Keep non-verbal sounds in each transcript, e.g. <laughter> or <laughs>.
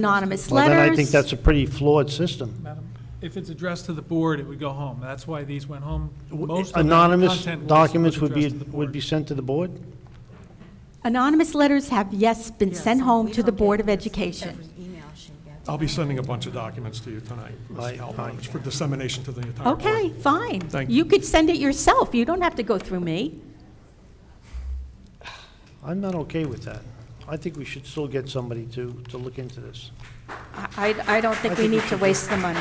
anonymous Well, letters. then I think that's a pretty flawed system. Madam, if it's addressed to the board, it would go home. That's why these went home. Most of the Anonymous content was- documents was would be, addressed to the would board. be sent to the board? Anonymous letters have, yes, been Yes, sent and home we to the don't Board get of this Education. every email she gets. I'll be sending a bunch of documents to you tonight, Ms. Right, Calhoun, fine. for dissemination to the entire board. Okay, fine. Thank you. You could send it yourself. You don't have to go through me. I'm not okay with that. I think we should still get somebody to, to look into this. I, I- I don't think we think we need to waste the money.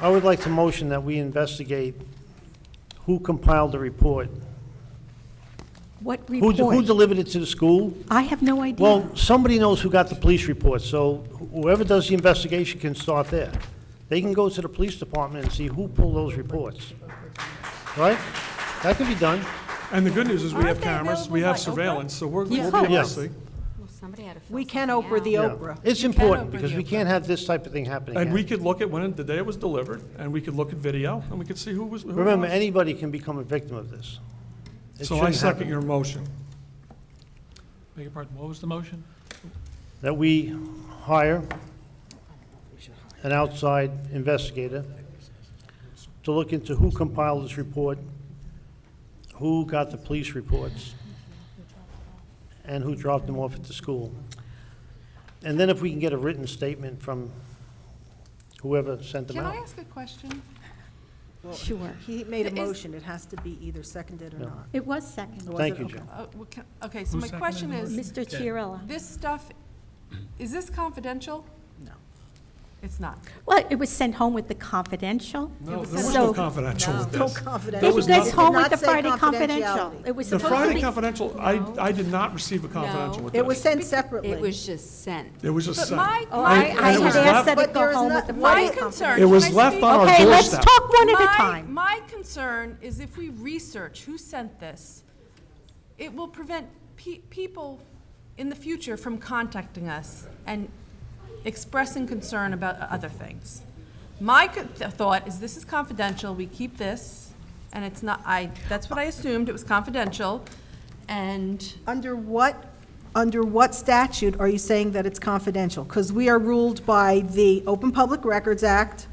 I would like to motion that we investigate who compiled the report. What Who, who report? delivered it to the school? I have no idea. Well, somebody knows who got the police report, so whoever does the investigation can start there. They can go to the police department and see who pulled those reports. Right? That can be done. And the good news is we Aren't have they cameras, available we by have Oprah? surveillance, so we're, Yeah. we'll be able Yeah. to see. Well, somebody had to fill We can something Oprah the out. Yeah. Oprah. It's You can important, Oprah because the we Oprah. can't have this type of thing happening And we again. could look at when the day it was delivered, and we could look at video, and we could see who was, who it Remember, was. anybody can become a victim of this. It So I shouldn't second happen. your motion. Beg your pardon, what was the motion? That we hire an outside investigator to look into who compiled this report, who got the police reports, and who dropped them off at the school. And then if we can get a written statement from whoever sent them Can I out. ask a question? Sure. He made a Is- motion, it has to be either seconded or No. not. It was second. Was Thank it? you, Okay. Jim. Uh, well, can- Okay, so Who my question seconded the is, Mr. Chiarella. this stuff, is this confidential? No. It's not. Well, it was sent home with the confidential. No, was there was so- no confidential with No this. confidential. It was goes nothing. home Did with not the say Friday confidential. confidentiality. It was The supposed to Friday be, confidential, I, I did not receive a confidential No. with this. It was sent separately. It was just sent. It was just But sent. my, Oh, my- I, And- I and it had was asked left- that it But go there is home not- with the why Friday my Friday concern. It can was I left speak? on our Okay, let's doorstep. talk one at a My- time. My concern is if we research who sent this, it will prevent pe- people in the future from contacting us and expressing concern about other things. My co- th- thought is this is confidential, we keep this, and it's not, I, that's what I assumed, it was confidential, and Under what, under what statute are you saying that it's confidential? Because we are ruled by the Open Public Records Act,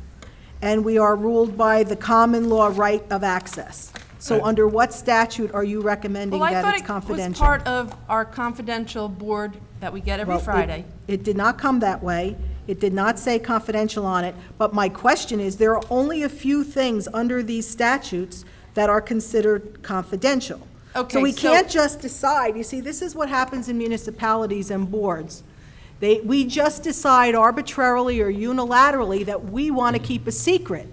and we are ruled by the common law right of access. So under what statute are you recommending Well, I that it's thought it was confidential? part of our confidential board that we get every Well, it- Friday. It did not come that way. It did not say confidential on it. But my question is, there are only a few things under these statutes that are considered confidential. Okay, So we so- can't just decide, you see, this is what happens in municipalities and boards. They, we just decide arbitrarily or unilaterally that we want to keep a secret.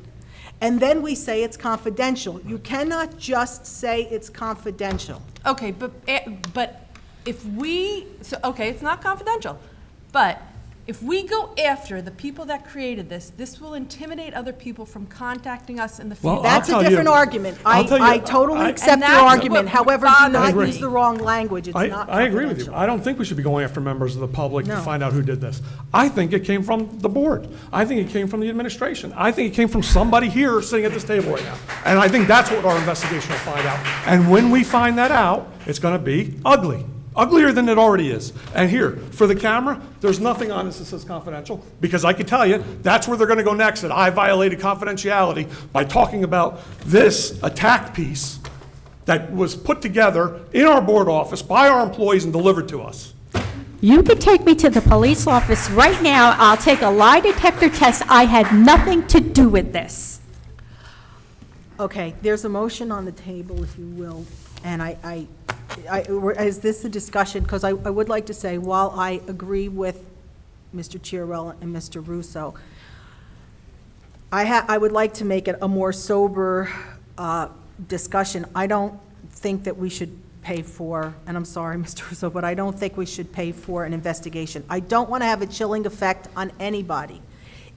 And then we say it's confidential. You cannot just say it's confidential. Okay, but, eh, but if we, so, okay, it's not confidential, but if we go after the people that created this, this will intimidate other people from contacting us in the Well, future. I'll That's a tell you- different argument. I'll I, tell you- I totally I- accept And your that's what argument, however, do bothers not me. use the wrong language, it's I, not I agree with you. confidential. I don't think we should be going after members of the public to No. find out who did this. I think it came from the board. I think it came from the administration. I think it came from somebody here sitting at this table right now. And I think that's what our investigation will find out. And when we find that out, it's going to be ugly, uglier than it already is. And here, for the camera, there's nothing on this that says confidential, because I can tell you, that's where they're going to go next, that I violated confidentiality by talking about this attack piece that was put together in our board office by our employees and delivered to us. You could take me to the police office right now. I'll take a lie detector test. I had nothing to do with this. Okay, there's a motion on the table, if you will, and I, I, I, is this a discussion? Because I, I would like to say, while I agree with Mr. Chiarella and Mr. Russo, I ha, I would like to make it a more sober, uh, discussion. I don't think that we should pay for, and I'm sorry, <laughs> Mr. Russo, but I don't think we should pay for an investigation. I don't want to have a chilling effect on anybody.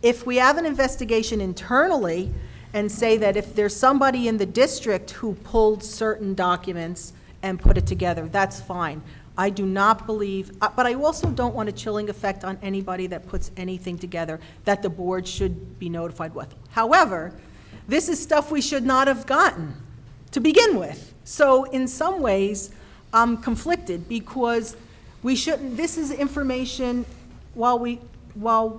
If we have an investigation internally and say that if there's somebody in the district who pulled certain documents and put it together, that's fine. I do not believe, uh, but I also don't want a chilling effect on anybody that puts anything together that the board should be notified with. However, this is stuff we should not have gotten to begin with. So in some ways, I'm conflicted because we shouldn't, this is information, while we while